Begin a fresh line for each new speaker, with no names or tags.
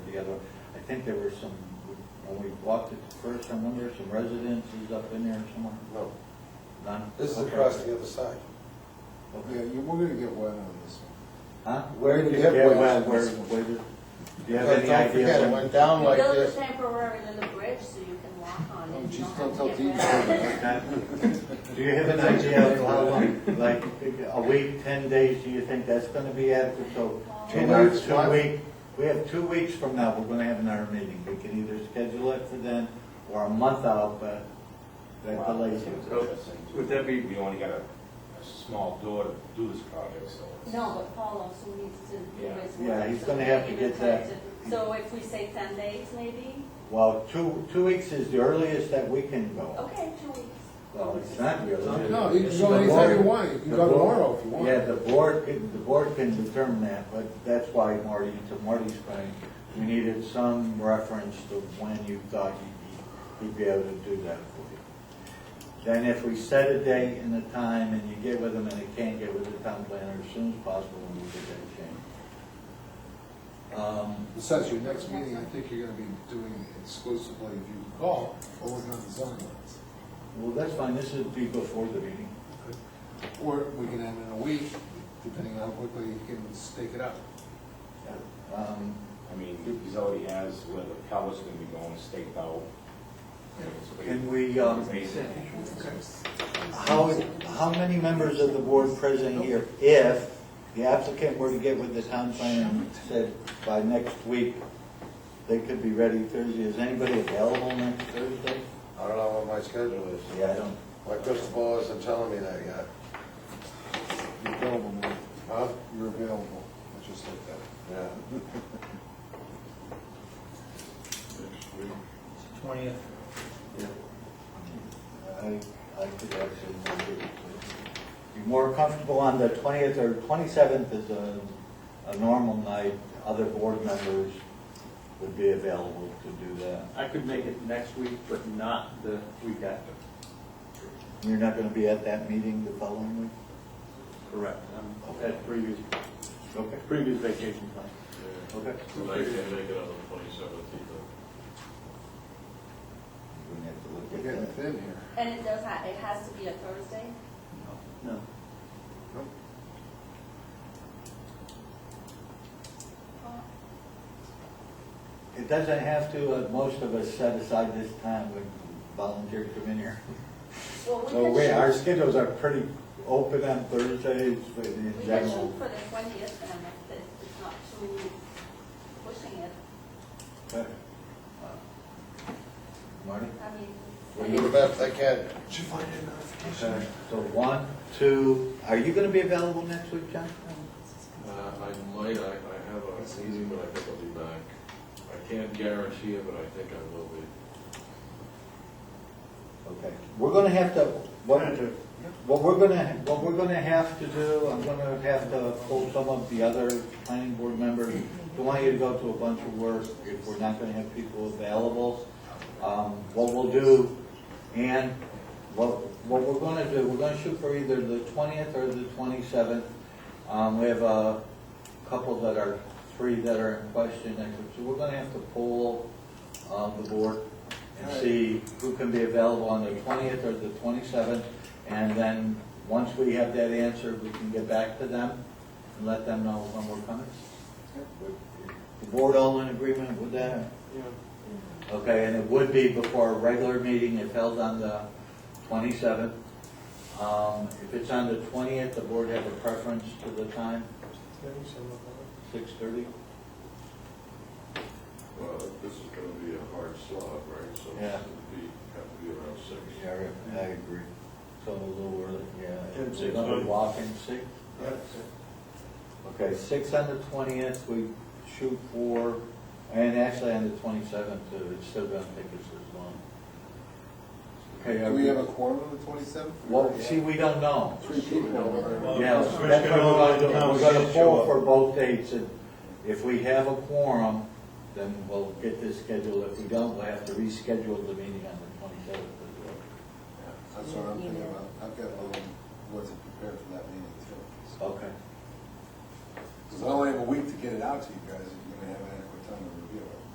the other. I think there were some, when we walked it first, I remember some residences up in there somewhere.
No,
None?
this is
Okay.
across the other side.
Yeah, you, we're gonna get wet on this one.
Huh?
Where did
Yeah,
you have waste
well,
on
where-
this one?
where did- Do you have
But
any
don't
idea?
forget, it
when-
went down like
Build a
this.
temporary little bridge so you can walk on it.
Oh,
You
geez,
have
don't
to
tell
get
Dean.
wet.
Do you have an idea of how long, like, a week, ten days, do you think that's gonna be adequate? So,
Two
in our
weeks,
two
what?
week, we have two weeks from now, we're gonna have another meeting. We can either schedule it for then, or a month out, but that delays it.
Oh, Would that be, we only got a, a small door to do this project, so. it's-
No, but Paul also needs to do
Yeah.
his work.
Yeah, he's
so
gonna
he
have to
even
get
tries
that.
to- So if we say ten days maybe,
Well, two, two weeks is the earliest that we can go.
okay, two weeks.
Well, it's not really.
No, you can go anytime you want, you can go tomorrow if you want.
Yeah, the board, can- the board can determine that, but that's why Marty, to Marty's point, we needed some reference to when you thought you'd be, you'd be able to do that for you. Then if we set a date and a time, and you get with them, and they can't get with the town planner as soon as possible, and we get that changed. Um,
Besides, your next meeting, I think you're gonna be doing exclusively, if you call, or working on the zoning laws.
Well, that's fine, this would be before the meeting.
Or we can end in a week, depending on how quickly you can stake it out.
Um,
I mean, he's already has where the pellet's gonna be going, staked out. It's pretty-
Can we, um,
Basic.
How, how many members of the board present here, if the applicant were to get with the town planner and said by next week, they could be ready Thursday, is anybody available next Thursday?
I don't know what my schedule is.
Yeah, I don't.
My crystal ball isn't telling me that yet.
You're available, man.
Huh?
You're available, let's just like that.
Yeah.
Twentieth,
I, I could actually make it. Be more comfortable on the twentieth or twenty-seventh is a, a normal night, other board members would be available to do that.
I could make it next week, but not the week after.
You're not gonna be at that meeting the following week?
Correct. I'm at previous,
Okay.
previous vacation time.
Okay.
So they can make it on the twenty-seventh either.
We have to
We're
look
getting
at that.
thin here.
And it does ha, it has to be a Thursday?
No.
It doesn't have to, uh, most of us set aside this time when volunteers come in here.
Well,
So
we
we, our
could shoot,
schedules are pretty open on Thursdays, but in
we could
general.
shoot for the twentieth and if it's it's not too pushing it,
but, uh, Marty?
I mean.
We'll do the best I can.
Did you find that notification?
Okay, So one, two, are you gonna be available next week, John?
Uh, I might, I, I have a meeting, but I think I'll be back. I can't guarantee it, but I think I will be.
Okay, we're gonna have to, what, what we're gonna, what we're gonna have to do, I'm gonna have to pull some of the other planning board members. Don't want you to go to a bunch of work if we're not gonna have people available. Um, what we'll do, and what, what we're gonna do, we're gonna shoot for either the twentieth or the twenty-seventh. Um, we have a couple that are, three that are in question next week, so we're gonna have to poll, um, the board and see who can be available on the twentieth or the twenty-seventh. And then, once we have that answer, we can get back to them and let them know when we're coming. The board all in agreement with that? Okay, and it would be before a regular meeting, if held on the 27th. Um, If it's on the 20th, the board have a preference to the time? 6:30?
Well, this is gonna be a hard slot, right? So
Yeah.
it'd be, have to be around six.
Yeah, I agree. So a little early, yeah.
Ten,
We're
six,
going
right?
to walk in 6? Okay, 6 on the 20th, we shoot for, and actually on the 27th, too, it's still going to take us as long. Okay,
Do
are
we
we-
have a quorum on the twenty-seventh?
well, see, we don't know.
Three people.
Yeah, that's
Switch
what
it
we're
over
gonna do,
to
we're gonna poll for both dates, and if we have a quorum, then we'll get this scheduled, if we don't, we'll have to reschedule the meeting on the twenty-seventh as well.
That's what I'm thinking about. I've got a little, wasn't prepared for that meeting too.
Okay.
Because I only have a week to get it out to you guys, if you're gonna have it.